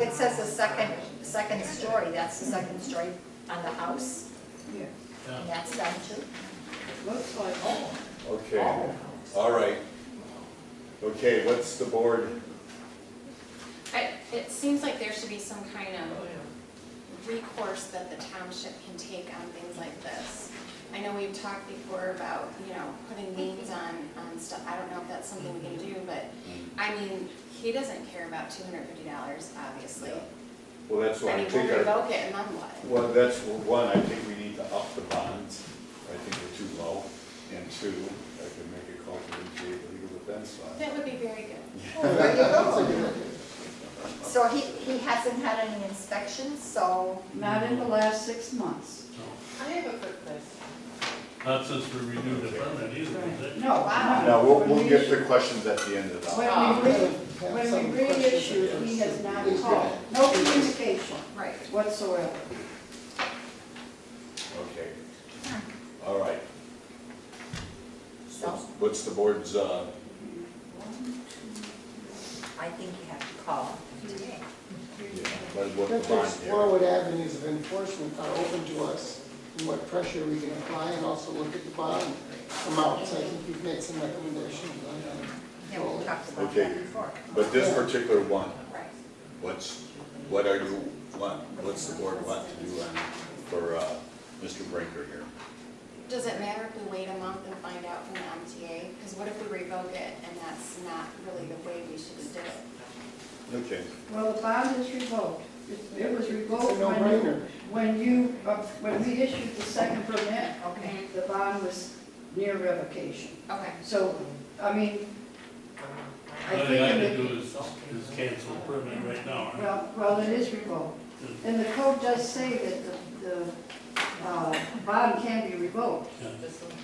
it says the second, second story, that's the second story on the house, Yeah, and that's done too. looks like Oh, all, all Okay, of us. all right. Okay, what's the board? I, it seems like there should be some kind Oh, of yeah. recourse that the township can take on things like this. I know we've talked before about, you know, putting names on, on stuff, I don't know if that's something we can do, but, I mean, he doesn't care about two hundred fifty dollars, obviously. Well, that's I what I mean, we'll think, our- revoke it and then what? well, that's one, I think we need to up the bonds. I think they're too low. And two, I can make a call to the DA legal defense fund. That would be very good. Oh, there you go. So he, he hasn't had any inspections, so, Not in the last six months. I have a quick question. Not since we renewed the permit either, is it? No, no. Now, we'll, we'll get the questions at the end of the. Ah. When we re, when we reissued, he has not called, no communication Right. whatsoever. Okay, all right. so What's the board's, uh, I think you have to call today. yeah, what- what Let's the bond explore here? what avenues of enforcement are open to us and what pressure we can apply and also look at the bond amounts. I think you've made some recommendations on that. Yeah, we talked about Okay. that before. But this particular one, Right. what's, what are you, want? what's the board want to do on, for, uh, Mr. Brinker here? Does it matter if we wait a month and find out from the MTA? Because what if we revoke it and that's not really the way we should do it? Okay. Well, the bond is revoked. It- It was revoked It's a when you, no-brainer. when you, uh, when we issued the second permit, Okay. the bond was near revocation. Okay. So, I mean, I All think they have it to would do is, is cancel the permit right now, right? Well, well, it is revoked. And the code does say that the, the, uh, bond can be revoked.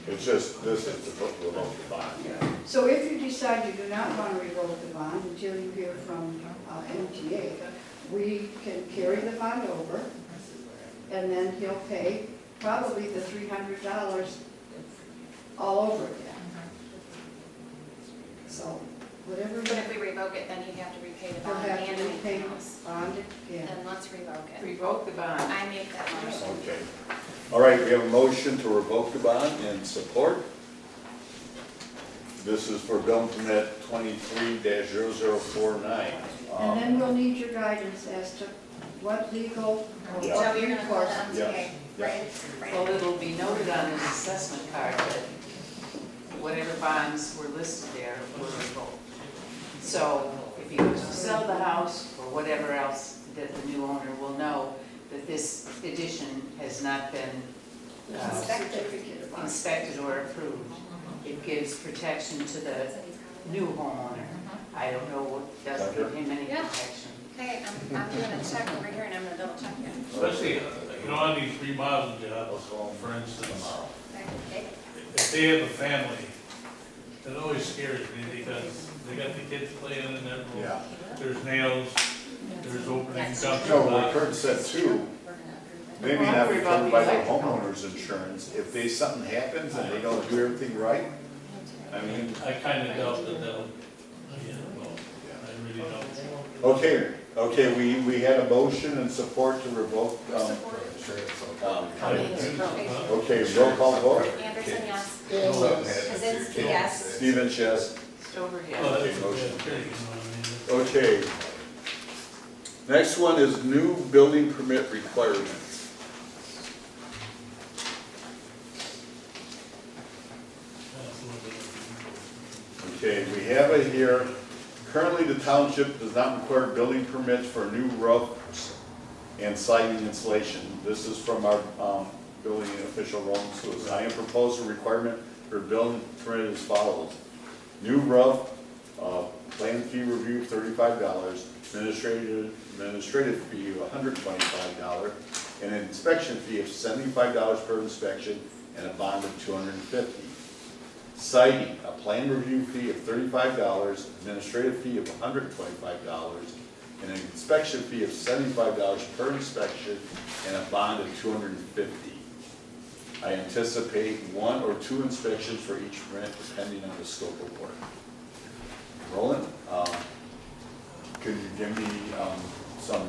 It's just, this is the book, the book, the bond. So if you decide you do not want to revoke the bond until you hear from, uh, MTA, we can carry the bond over, and then he'll pay probably the three hundred dollars all over again. So, whatever, But if we revoke it, then he'd have to repay the he'll bond have and to repay anything the else. bond again. Then let's revoke it. Revoke the bond. I make that motion. Okay. All right, we have a motion to revoke the bond and support. This is for bill permit twenty-three 49 And then Um, we'll need your guidance as to what legal or Yeah. So what you're gonna call the recourse. MTA, Yeah. right? Well, Right. it'll be noted on his assessment card that whatever bonds were listed there were revoked. So if he was to sell the house or whatever else, that the new owner will know that this addition has not been uh, Certificate of occupancy. inspected or approved. It gives protection to the new homeowner. I don't know what, doesn't give him any Yeah. protection. Okay, I'm, I'm gonna check over here and I'm gonna double check it. Especially, uh, you know, on these remodel jobs, for instance, Okay. if they have a family, it always scares me because they got the kids playing in their room. Yeah. There's nails, there's opening No, dumpster what Kurt said too, We're gonna approve it. maybe not covered by the homeowner's insurance, if they, something happens and they don't do everything right, I mean, I kinda doubt that that would, yeah, well, I really don't. okay, okay, we, we had a motion and support to revoke, um, um, okay, roll call vote, Anderson, yes. Yeah, so- Kazinsky, yes. Stevens, yes. Stover, yes. Well, that's a motion. bad thing, you know what I mean? Okay. Next one is new building permit requirements. That's a little bit- Okay, we have it here. Currently, the township does not require building permits for new roofs and siding insulation. This is from our um, building official, Roland Lewis. I am proposing requirement for building permit as follows. New roof, uh, plan fee review thirty-five dollars, administrative, administrative fee of hundred twenty-five dollar, and an inspection fee of seventy-five dollars per inspection, and a bond of two hundred and fifty. Citing, a plan review fee of thirty-five dollars, administrative fee of hundred and twenty-five dollars, and an inspection fee of seventy-five dollars per inspection, and a bond of two hundred and fifty. I anticipate one or two inspections for each rent, depending on the scope of work. Roland, um, could you give me um, some